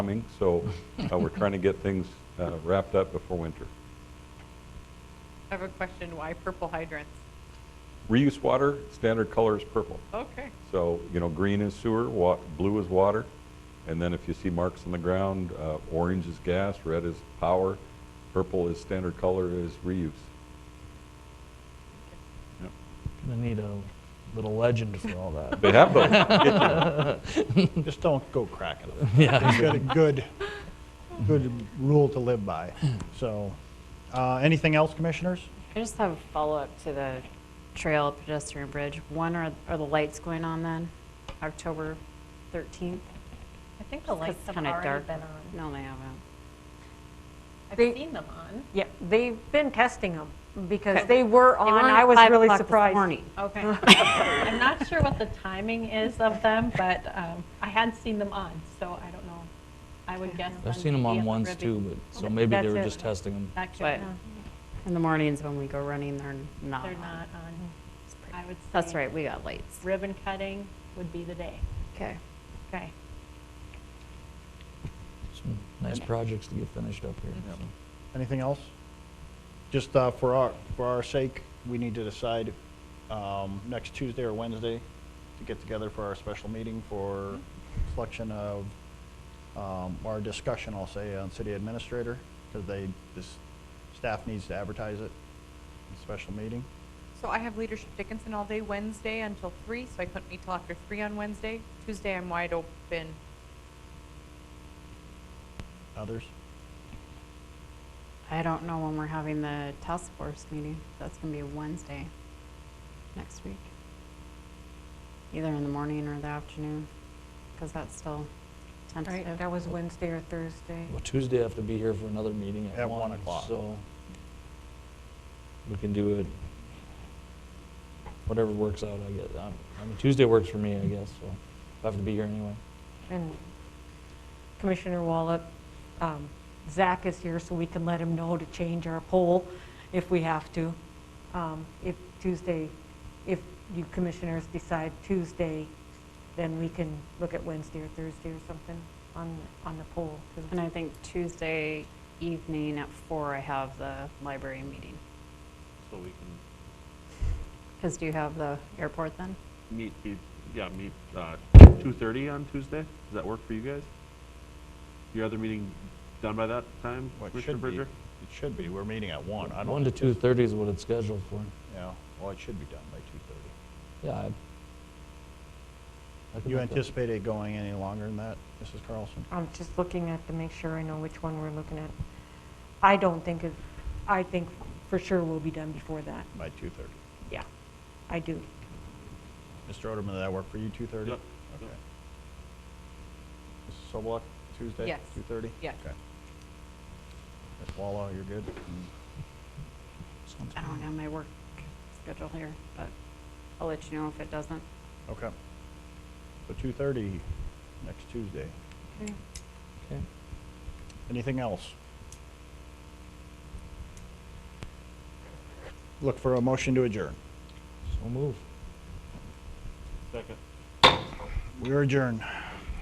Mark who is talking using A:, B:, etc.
A: coming, so uh, we're trying to get things uh, wrapped up before winter.
B: I have a question, why purple hydrants?
A: Reuse water, standard color is purple.
B: Okay,
A: So, you know, green is sewer, wa, blue is water, and then if you see marks on the ground, uh, orange is gas, red is power, purple is standard color is reuse. Yep.
C: Gonna need a little legend for all that.
A: They have those.
D: Just don't go cracking them.
C: Yeah,
D: You've got a good, good rule to live by. So, uh, anything else, commissioners?
E: I just have a follow-up to the trail pedestrian bridge. One, are, are the lights going on then, October 13th?
F: I think the lights have
E: kind of
F: already
E: dark.
F: been on.
E: No, they haven't.
F: I've
G: They-
F: seen them on.
G: Yeah, they've been testing them because they were on, I was really surprised.
F: Okay. I'm not sure what the timing is of them, but um, I had seen them on, so I don't know. I would guess.
C: I've seen them on ones too, but, so maybe they
G: That's
C: were
G: it.
C: just testing them.
F: Actually,
E: But-
F: no,
E: In the mornings when we go running, they're not.
F: they're
E: on.
F: not on. I would say.
E: That's right, we got lights.
F: Ribbon cutting would be the day.
E: Okay.
F: Okay.
C: Some Nice projects to get finished up here. so.
D: Anything else? Just uh, for our, for our sake, we need to decide um, next Tuesday or Wednesday to get together for our special meeting for selection of, um, our discussion, I'll say, on city administrator, because they, this, staff needs to advertise it, special meeting.
B: so I have leadership Dickinson all day Wednesday until three, so I couldn't meet till after three on Wednesday. Tuesday, I'm wide open.
D: Others?
E: I don't know when we're having the task force meeting. That's gonna be Wednesday next week. Either in the morning or the afternoon, because that's still
G: Right,
E: tentative.
G: that was Wednesday or Thursday.
C: Well, Tuesday I have to be here for another meeting at
D: At one
C: one,
D: o'clock.
C: so we can do it, whatever works out, I guess. Um, I mean, Tuesday works for me, I guess, so I have to be here anyway.
G: And Commissioner Wallop, um, Zach is here so we can let him know to change our poll if we have to. Um, If Tuesday, if you commissioners decide Tuesday, then we can look at Wednesday or Thursday or something on, on the poll. 'cause
E: And I think Tuesday evening at four, I have the library meeting.
H: So we can
E: Because do you have the airport then?
H: meet, be- yeah, meet, uh, two thirty on Tuesday? Does that work for you guys? Your other meeting done by that time,
D: Well, it
H: Commissioner
D: should be,
H: Bridger?
D: it should be, we're meeting at one, I don't.
C: One to two thirty is what it's scheduled for.
D: Yeah, well, it should be done by two thirty.
C: Yeah. I- I could
D: You
C: make that.
D: anticipate it going any longer than that, Mrs. Carlson?
G: I'm just looking at to make sure I know which one we're looking at. I don't think it, I think for sure we'll be done before that.
D: By two thirty.
G: Yeah, I do.
D: Mr. Oderman, did that work for you, two thirty?
H: Yep,
D: Okay.
H: yep.
D: Mrs. Sobeluk, Tuesday?
B: Yes.
D: Two thirty?
B: Yes.
D: Okay. Ms. Wallo, you're good?
C: Sounds
E: I don't
C: good.
E: have my work schedule here, but I'll let you know if it doesn't.
D: Okay. So two thirty, next Tuesday.
C: Okay.
D: Anything else? Look for a motion to adjourn.
C: So move.
H: Second.
D: We are adjourned.